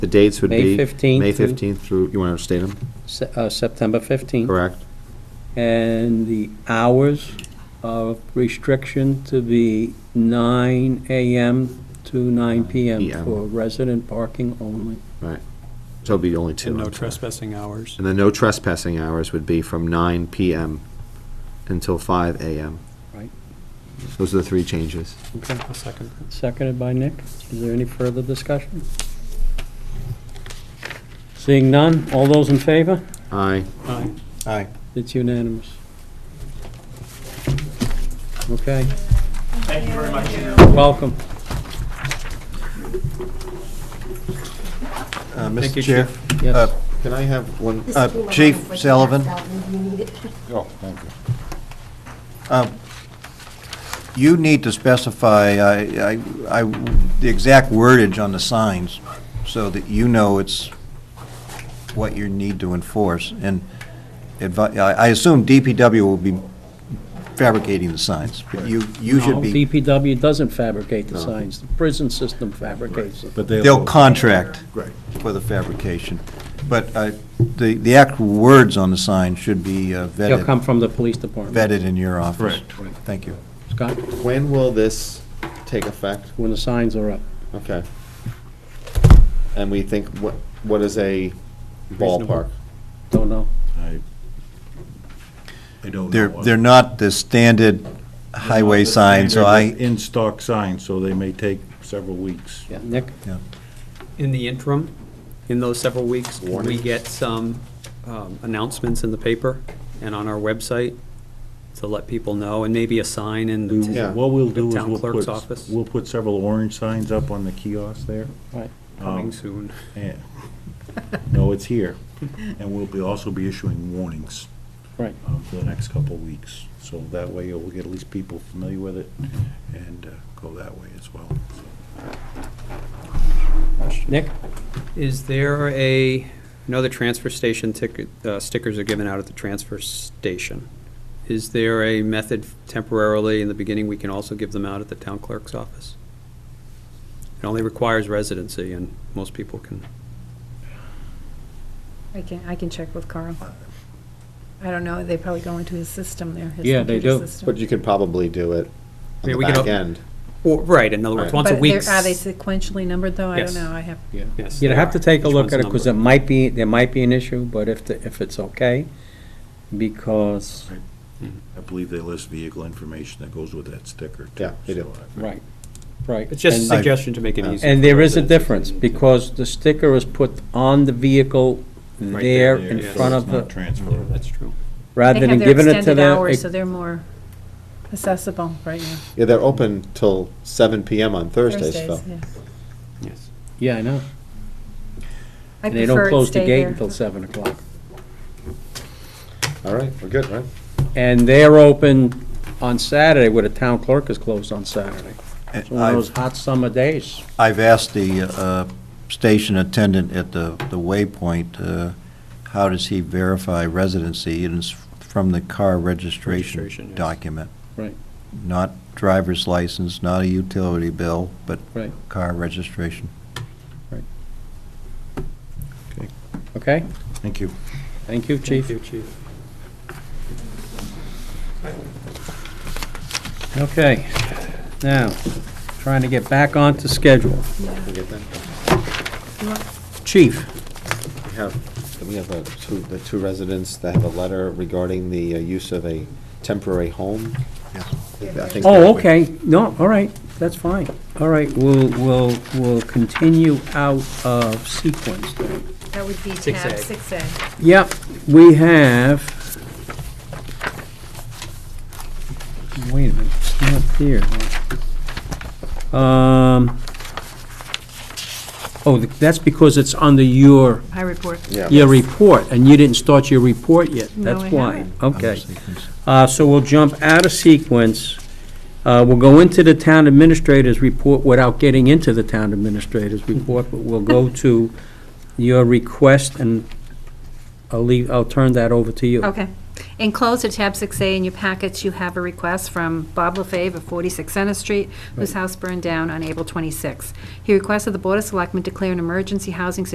The dates would May be... 15th May through- 15th through, you want to state them, Se- uh, September 15th. correct? And the hours of restriction to be 9 AM to 9 PM PM. for resident parking only. Right. So it'd be only two. And I'm no sorry. trespassing hours. And the no trespassing hours would be from 9 PM until 5 AM. Right. Those are the three changes. Okay, I'll second that. Seconded by Nick. Is there any further discussion? Seeing none, all those in favor? Aye. Aye. Aye. It's unanimous. Okay. Thank you very much. Welcome. Uh, Thank you, Mr. Chair. Yes. uh, Can I have one? Uh, Chief Sullivan. Oh, thank you. um, You need to specify, I, I, I- the exact wordage on the signs, so that you know it's what you need to enforce, and advi, I I assume DPW will be fabricating the signs, but you, you No, should be, DPW doesn't fabricate the signs. The prison system fabricates it. But they'll contract Right. for the fabrication, but uh, the, the actual words on the sign should be uh, They'll vetted, come from the police department. vetted in your office. Correct. Thank you. Scott, When will this take effect? when the signs are up. Okay. And we think, what, what is a ballpark? Don't know. I I don't know. They're, they're not the standard highway sign, so I, In-stock signs, so they may take several weeks. Yeah, Nick? In the interim, in those several weeks, can we Warning. get some um, announcements in the paper and on our website to let people know, and maybe a sign in We- the, Yeah. What we'll do is Town we'll clerk's put, office. we'll put several orange signs up on the kiosk there. Right. coming Oh. soon. Yeah. No, it's here. And we'll be, also be issuing warnings. Right. um, For the next couple of weeks. So that way we'll get at least people familiar with it and uh, go that way as well. so. Nick? Is there a, I know the transfer station ticket, uh, stickers are given out at the transfer station. Is there a method temporarily in the beginning, we can also give them out at the town clerk's office? It only requires residency and most people can, I can, I can check with Carl. I don't know, they probably go into his system there. his Yeah, they computer do. system. But you could probably do it on Yeah, the we could back al- end. Well, right, in other words, Right. once a But week. they're- Are they sequentially numbered, though? I Yes. don't know, I have, Yes, You'd they have are. to take a Each look one's at it, because it numbered. might be, there might be an issue, but if, the- if it's okay, because, I believe they list vehicle information that goes with that sticker. too, Yeah, they do. so I- right, right. It's just a And- I- suggestion to make it easier. And for there is a residents if they difference, need to. because the sticker is put on the vehicle there there, in yeah. front So of it's not the, transferable. That's true. they rather than have their giving it to extended hours, so the, they're more accessible right now. Yeah, they're open till seven PM on Thursdays, Phil. Thursdays, yeah. Yes. yeah, I know. I And they don't prefer it close the stay gate there. until seven o'clock. All right, we're good, right? And they're open on Saturday, where the town clerk is closed on Saturday. It's one of those I've, hot summer days. I've asked the uh, station attendant at the, the waypoint, uh, how does he verify residency? And it's from the car Registration, registration yes. document. Right. Not driver's license, not a utility bill, but Right. car registration. Okay? Thank you. Thank you, Thank chief. you, Chief. Okay. Now, trying to get back onto schedule. We get that? Chief, We have, we have uh, two, the two residents that have a letter regarding the uh, use of a temporary home. I think Oh, that- okay, no, all right, that's fine. All right, we'll, we'll, we'll continue out of sequence then. That would be Six A. tab six A. Yep, we have, wait a minute, it's not here. Um, oh, that's because it's under your, I report. Yeah. your report, and you didn't start your report yet, No, that's I why. haven't. Okay. Sequence. Uh, So we'll jump out of sequence. Uh, We'll go into the town administrator's report without getting into the town administrator's report, but we'll go to your request, and I'll leave, I'll turn that over to you. Okay. Enclosed at tab 6A in your packets, you have a request from Bob LaFave of 46 Center Street, whose house burned down on April 26. He requested the Board of Selectmen declare an emergency housing situation